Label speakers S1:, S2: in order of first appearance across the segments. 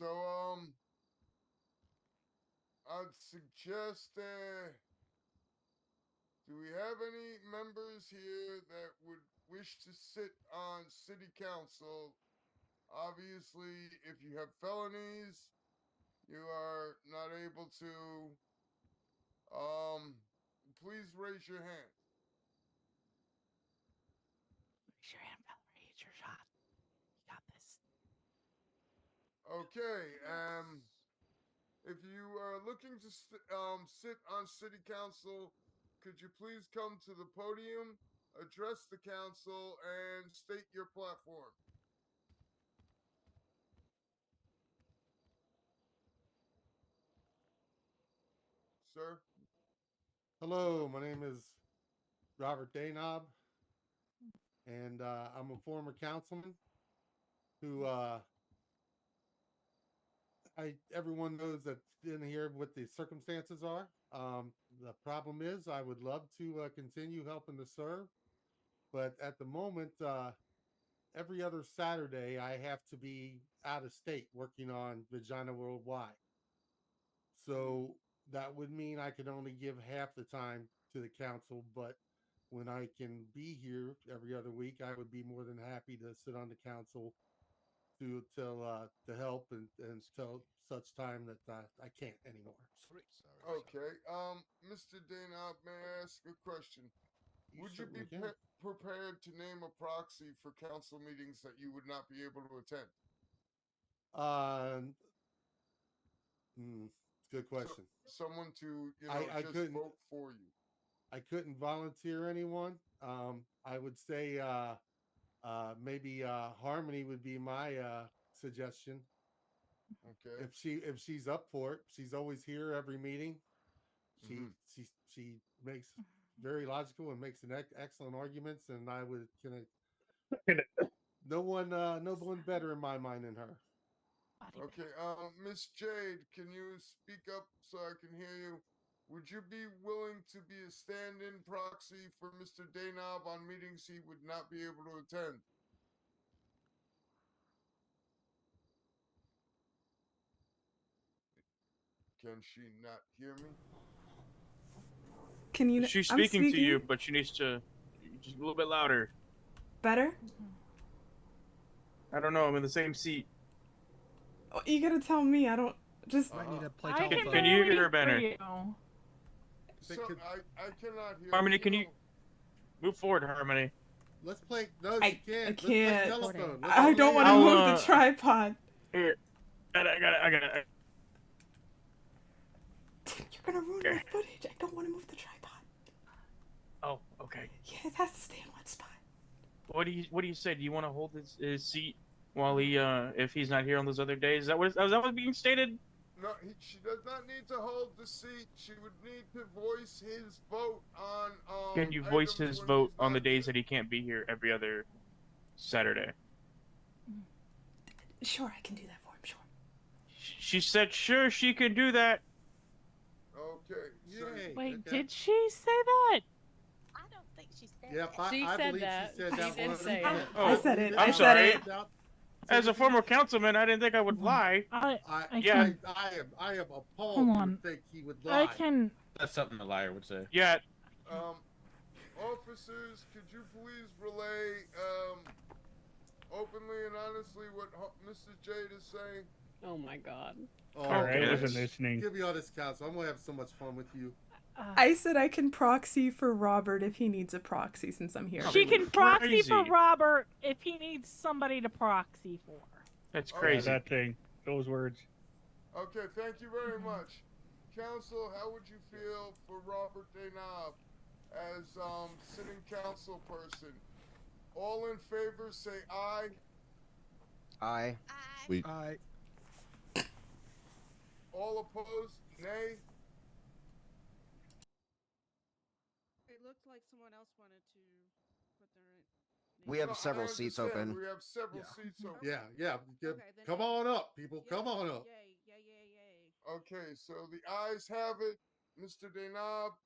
S1: um, I'd suggest uh, do we have any members here that would wish to sit on city council? Obviously, if you have felonies, you are not able to. Um, please raise your hand.
S2: Raise your hand, Valerie. It's your shot. You got this.
S1: Okay, um, if you are looking to st- um, sit on city council, could you please come to the podium, address the council, and state your platform? Sir?
S3: Hello, my name is Robert Daynob, and uh, I'm a former councilman who uh, I everyone knows that's in here what the circumstances are. Um, the problem is, I would love to uh, continue helping to serve, but at the moment, uh, every other Saturday I have to be out of state working on Vagina Worldwide. So that would mean I could only give half the time to the council, but when I can be here every other week, I would be more than happy to sit on the council to tell uh to help and and till such time that uh, I can't anymore.
S4: Sorry, sorry, sorry.
S1: Okay, um, Mr. Dana, may I ask a question? Would you be
S3: certainly
S1: pre- prepared to name a proxy for council meetings that you would not be able to attend?
S3: Um, mm, good question.
S1: Someone to, you know,
S3: I- I
S1: just
S3: couldn't-
S1: vote for you.
S3: I couldn't volunteer anyone. Um, I would say uh, uh, maybe uh, Harmony would be my uh, suggestion.
S1: Okay.
S3: if she if she's up for it she's always here every meeting she
S1: Mhm.
S3: she she makes
S5: Mm-hmm.
S3: very logical and makes an ec- excellent arguments and i would can I, no one uh no one better in my mind than her
S2: Body bag.
S1: Okay, um, Miss Jade, can you speak up so I can hear you? Would you be willing to be a stand-in proxy for Mr. Danob on meetings he would not be able to attend? Can she not hear me?
S6: Can you? kn-
S5: She's
S6: I'm
S5: speaking, to you, but she needs to just a little bit louder.
S6: Better?
S5: I don't know. I'm in the same seat.
S6: Oh, you gotta tell me. I don't just.
S1: Uh,
S7: play
S2: I
S5: telephone.
S2: can,
S5: Can you
S2: barely
S5: hear her, Banner?
S2: you.
S3: They
S1: So
S3: could-
S1: I, I cannot hear.
S5: Harmony, can you
S1: though.
S5: move forward, Harmony?
S3: let's play no
S6: I-
S3: she can't
S6: I
S3: Let's play
S6: can't.
S3: telephone. Let's
S6: I
S3: play-
S6: don't want to
S5: I'll,
S6: move
S5: uh,
S6: the tripod.
S5: Here. I got it. I got it.
S6: Tim, you're gonna ruin my
S5: okay.
S6: footage. I don't want to move the tripod.
S5: Oh, okay.
S6: Yeah, it has to stay in one spot.
S5: What do you What do you say? Do you want to hold his, his seat while he, uh, if he's not here on those other days? Is that what is that was being stated?
S1: No, he, she does not need to hold the seat. She would need to voice his vote on. Um,
S5: Can you voice
S1: items
S5: his
S1: when
S5: vote
S1: he's
S5: on the
S1: not
S5: days
S1: here.
S5: that he can't be here every other Saturday?
S6: Sure, I can do that for him. Sure.
S5: Sh- She said, "Sure, she can do that."
S1: Okay. So
S3: Yay,
S2: Wait,
S3: okay.
S2: did she say that?
S7: I don't think she said
S3: yep i,
S7: She
S3: I
S7: said
S3: believe
S7: that.
S3: she said
S7: She
S3: that
S7: did
S3: one.
S7: say it.
S3: I
S5: Oh,
S3: believe
S6: I
S3: it.
S6: I'm
S5: sorry.
S3: I doubt-
S5: As a former councilman, I didn't think I would lie.
S2: I,
S3: I,
S2: I
S3: yeah.
S2: can-
S3: I, I am. I am appalled.
S2: Hold
S3: you would
S2: on.
S3: think he would lie.
S2: I can.
S4: That's something a liar would say.
S5: Yeah,
S1: Um, officers, could you please relay um, openly and honestly what ho- Mrs. Jade is saying?
S7: Oh my god.
S3: Oh,
S5: All right,
S3: gosh.
S5: listen,
S8: listening.
S3: Give me all this counsel. I'm gonna have so much fun with you.
S2: Uh,
S6: I said I can proxy for Robert if he needs a proxy since I'm here.
S2: she can proxy for
S5: Crazy.
S2: Robert if he needs somebody to proxy for.
S5: that's
S1: Oh, yeah,
S5: crazy.
S8: that thing. Those words.
S1: Okay, thank you very much. Council, how would you feel for Robert Danob as um, sitting council person? All in favor, say aye.
S4: I.
S7: I
S4: We-
S8: I
S1: All opposed, nay.
S9: It looked like someone else wanted to put their.
S4: We have
S1: No, I
S4: several seats
S1: understand.
S4: open.
S1: We have several
S8: Yeah.
S1: seats open.
S3: Yeah, yeah. Good.
S9: Okay, then
S3: Come
S9: I-
S3: on up, people. Come
S9: Yay,
S3: on up.
S9: Yay, yay, yay, yay.
S1: Okay, so the eyes have it. Mr. Denob,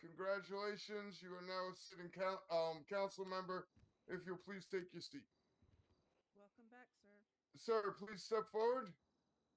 S1: congratulations. You are now a sitting coun um, council member. If you'll please take your seat.
S9: Welcome back, sir.
S1: Sir, please step forward.